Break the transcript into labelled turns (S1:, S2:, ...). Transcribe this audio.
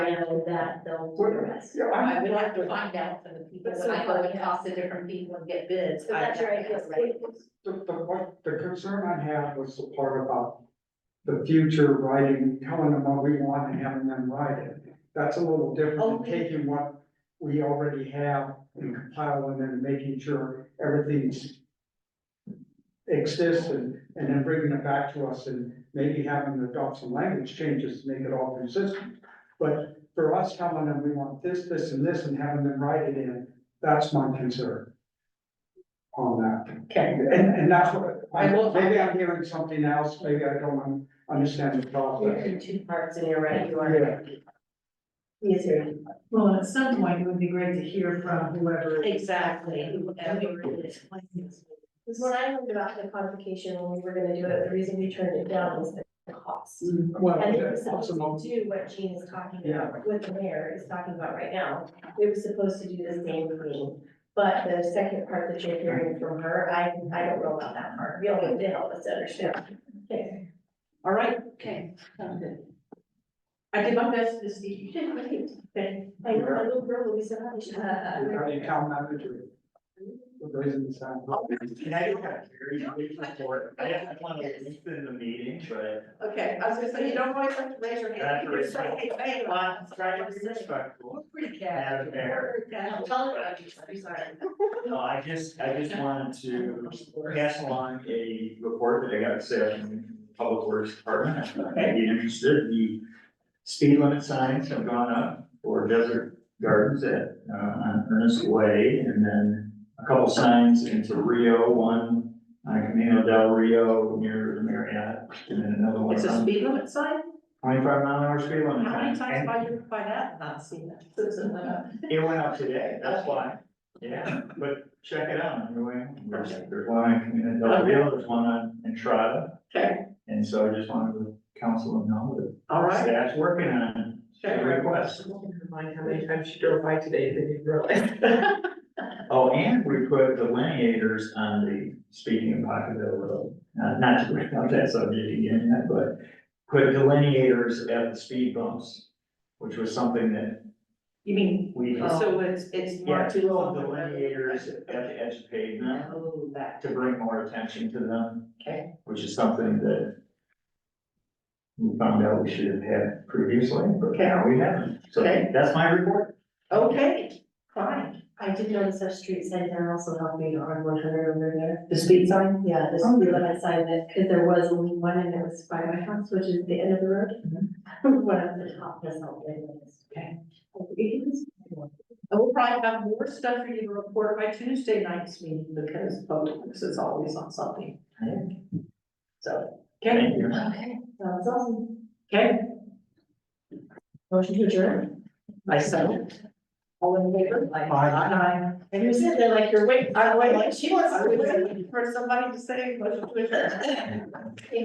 S1: know that they'll order us.
S2: Yeah,
S3: I
S2: I'm-
S3: would have to find out from the people,
S1: That's so
S3: I know
S1: funny.
S3: it costs the different people and get bids.
S1: So
S3: I-
S1: that's your idea.
S3: Right.
S2: The, the, what, the concern I had was the part about the future writing, telling them what we want and having them write it. That's a little different than
S1: Okay.
S2: taking what we already have and compiling and making sure everything's exists and, and then bringing it back to us and maybe having to adopt some language changes to make it all consistent. But for us telling them we want this, this and this and having them write it in, that's my concern on that.
S3: Okay,
S2: And, and that's what,
S3: I will-
S2: maybe I'm hearing something else, maybe I don't un- understand the
S1: You're
S2: process.
S1: in two parts and you're right, you
S2: Yeah.
S1: are. Yes, sir.
S4: Well, at some point, it would be great to hear from whoever.
S3: exactly.
S4: Whoever it is.
S1: Because when I learned about the codification, when we were gonna do it, the reason we turned it down was the cost.
S2: Well, uh,
S1: And it was
S2: that's
S1: supposed
S2: a-
S1: to do what Gene is talking about, what the mayor is talking about right now. It was supposed to do the same thing, but the second part that you're hearing from her, I, I don't know about that part. We only did all this other stuff. Okay.
S3: All right, okay. sounds good. I did my best, Miss Steve, you did great. Okay.
S1: I know, my little girl will be so happy.
S2: How do you count that victory? The reason it's not-
S5: Can I just have very brief report? I just want to lengthen the meeting, but
S3: Okay, I was gonna say, you don't always have to raise your hand. You can just say, hey, hey,
S5: Uh,
S3: well, I'm
S5: try
S3: sorry,
S5: to
S3: I'm
S5: be
S3: sorry.
S5: respectful.
S3: We're pretty
S5: Madam
S3: cat.
S5: Mayor.
S3: Yeah, tell her what I'm sorry, sorry.
S5: No, I just, I just wanted to pass along a report that I got set in Public Works Department. I'd be interested, the speed limit signs have gone up for Desert Gardens at, uh, on Ernest Way. And then a couple signs into Rio, one on Camino del Rio near the Marriott, and then another one
S3: It's a
S5: on
S3: speed limit sign?
S5: twenty-five mile an hour speed limit.
S3: How many
S5: sign.
S3: times
S5: And-
S3: have I driven by that and not seen that? Susan, uh,
S5: It went up today, that's why, yeah, but check it out on your way. There's, there's one on Camino del Rio, there's one on Entrada,
S3: Okay,
S5: and so I just wanted to counsel them know that
S3: all right.
S5: staff's working on
S3: Sure.
S5: a request.
S6: Mind how many times she drove by today, they didn't realize.
S5: Oh, and we put delineators on the, speaking of Pocketville Road, not, not to bring up that subject again, yet, but put delineators at the speed bumps, which was something that
S3: You mean,
S5: we.
S3: so it's, it's
S5: Yeah,
S3: marked too long.
S5: delineators at the edge of pavement.
S3: Oh, that,
S5: to bring more attention to them,
S3: okay,
S5: which is something that we found out we should have had previously, but now we haven't. So
S3: Okay.
S5: that's my report.
S3: okay, fine.
S1: I did notice that street sign down also helping on one hundred over there.
S3: The speed sign?
S1: Yeah, the
S3: Oh,
S1: speed
S3: good.
S1: limit sign that, because there was only one and it was by my house, which is the end of the road. One of the top that's not there.
S3: Okay. And we'll probably have more stuff for you to report by Tuesday night's meeting because public works is always on something. So, okay,
S5: Thank you.
S1: Okay, sounds awesome.
S3: okay,
S1: Motion to adjourn.
S3: I second. All in favor? Aye.
S1: And you're sitting there like you're waiting, I'm waiting, like she wants
S3: I
S1: to.
S3: was waiting for somebody to say motion to adjourn.